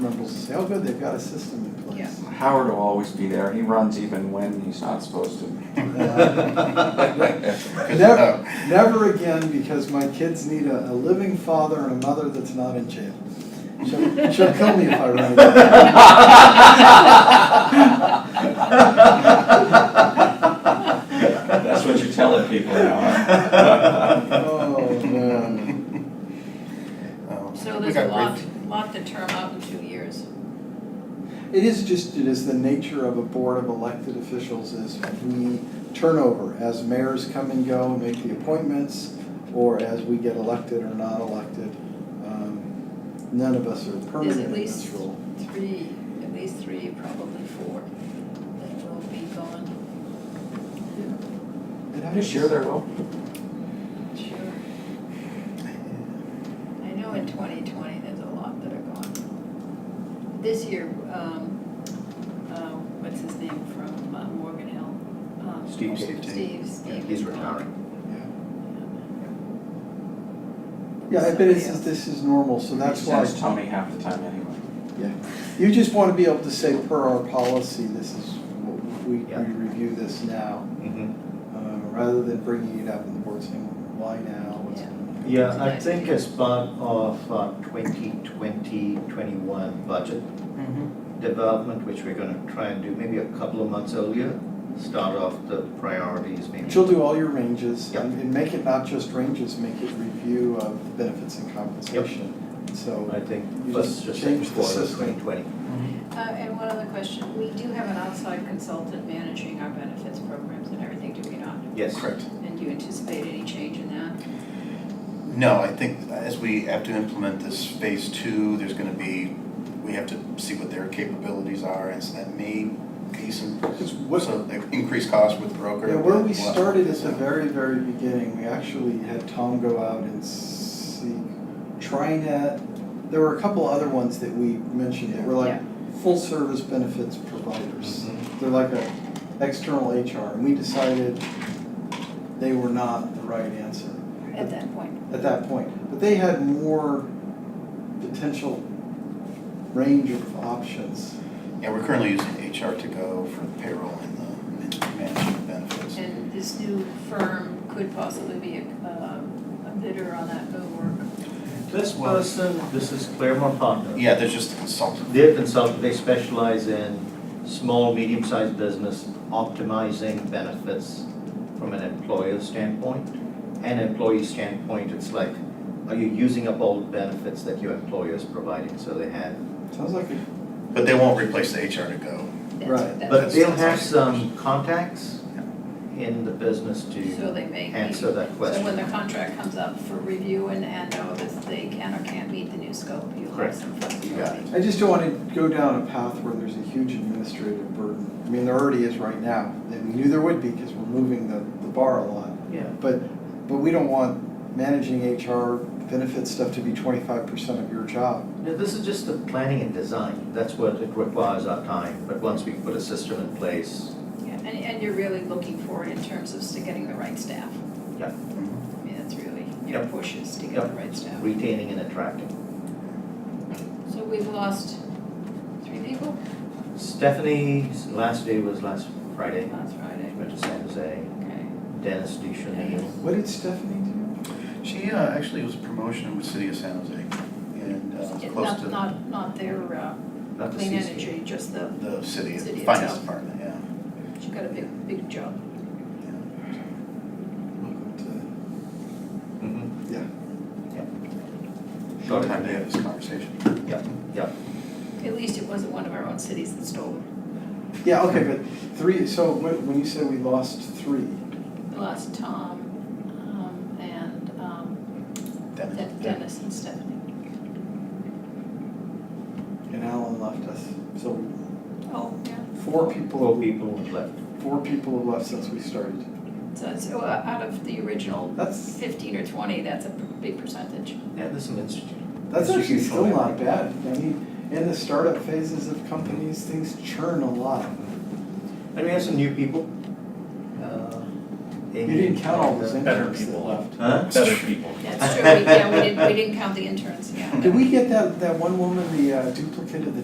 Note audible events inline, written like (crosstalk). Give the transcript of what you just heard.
see how "Oh, good they've got a system in place. Howard will always be there, he runs even when he's not supposed to. (laughs) (laughs) Never, never again, because my kids need a, a living father and a mother that's not in jail. She'll, she'll kill me if I run it. That's what you're telling people now. Oh, man. Um, So we there's a got great- lot, lot to term out in two years. It is just, it is the nature of a board of elected officials is we turn over as mayors come and go and make the appointments, or as we get elected or not elected. Um, None of us are There's permanent at in this least role. three, at least three, probably four, that will be gone. It I'm sure there will. Sure. I know in twenty twenty, there's a lot that are gone. This year, um, uh, what's his name from uh, Morgan Hill? Um, Steve Steve. Steve, Yeah, Steve He's is gone. retiring. Yeah, I bet it's, Somebody else. this is normal, so that's why. That's Tommy half the time anyway. You just want to be able to say, per our policy, this is, what we, Yeah. we review this now, Mm-hmm. uh, rather than bringing it up and the board saying, why now? What's Yeah. going on?" Yeah, I think as part of uh, our 2020-21 budget development, which we're gonna try and do maybe a couple of months earlier, start off the priorities maybe. But you'll do all your ranges, Yeah. and and make it not just ranges, make it review of the benefits and compensation. So, I think You just first, just change the quarter of system. 2020. Uh, and one other question, we do have an outside consultant managing our benefits programs and everything, do we not? Yes. Correct. And do you anticipate any change in that? No, I think as we have to implement this phase two, there's gonna be, we have to see what their capabilities are, and so that may be some, Because so they increase costs with the broker. yeah, where we We'll have to started at figure the this out. very, very beginning, we actually had Tom go out and see, trying to, there were a couple other ones that we mentioned that were like full-service benefits Mm-hmm. providers. They're like a external HR, and we decided they were not the right answer At that point, at that point. But they had more potential range of options. Yeah, we're currently using HR to go for the payroll and the and management of benefits. and this new firm could possibly be a, um, a bidder on that new work. This person, this is Claremont Partners. Yeah, there's just a consultant. They're consultant, they specialize in small, medium-sized business optimizing benefits from an employer standpoint and employee standpoint. It's like, are you using up all the benefits that your employer is providing? So they have, Sounds like, a- But they won't replace the HR to go. Right. That's, but that's, they- they'll have some contacts in the business so to they may be. answer that So when question. the contract comes up for review and, and know that they can or can't meet the new scope, you'll have Correct. some You got flexibility. I just don't want to go down a path where there's a huge administrative burden. I mean, there already is right now, and we knew there would be because we're moving the, the bar a lot. Yeah. But, but we don't want managing HR benefit stuff to be twenty-five percent of your job. Now, this is just the planning and design. That's what it requires our time. But once we put a system in place, Yeah, and, and you're really looking forward in terms of st- getting the right staff. Yeah. I mean, that's really, your Yep. push is to get the Yep. right staff. retaining and attracting. So we've lost three people Stephanie's last day was last Friday. last Friday, She went to San Jose. okay. Dennis DeChenille. What did Stephanie do? She uh, actually was a promotion with City of San Jose and uh, was It- close Not, to not, not their uh, Not the clean CC. energy, just the, the city, City finance itself. department, yeah. she got a big, big job. Welcome Mhm. Yeah. Yep. Short Short time and to clear. have this conversation. Yep, yep. At least it wasn't one of our own cities that stole it. to- Yeah, okay, but three, so when, when you said we lost three, We lost Tom um, and um, Dennis. Den- Dennis and Stephanie. and Alan left us, so Oh, yeah. four people. Four people left. Four people have left since we started. So, so uh, out of the original That's, fifteen or twenty, that's a p- big percentage. Yeah, there's some institute. that's That's actually usually still not bad. I mean, in the startup phases of companies, things churn a lot. And we have some new people. Uh, You Amy didn't count all and, those uh, interns that left. Huh? better people. (laughs) That's true, we, yeah, we didn't, we didn't count the interns, yeah. Did we get that, that one woman, the uh, duplicate of the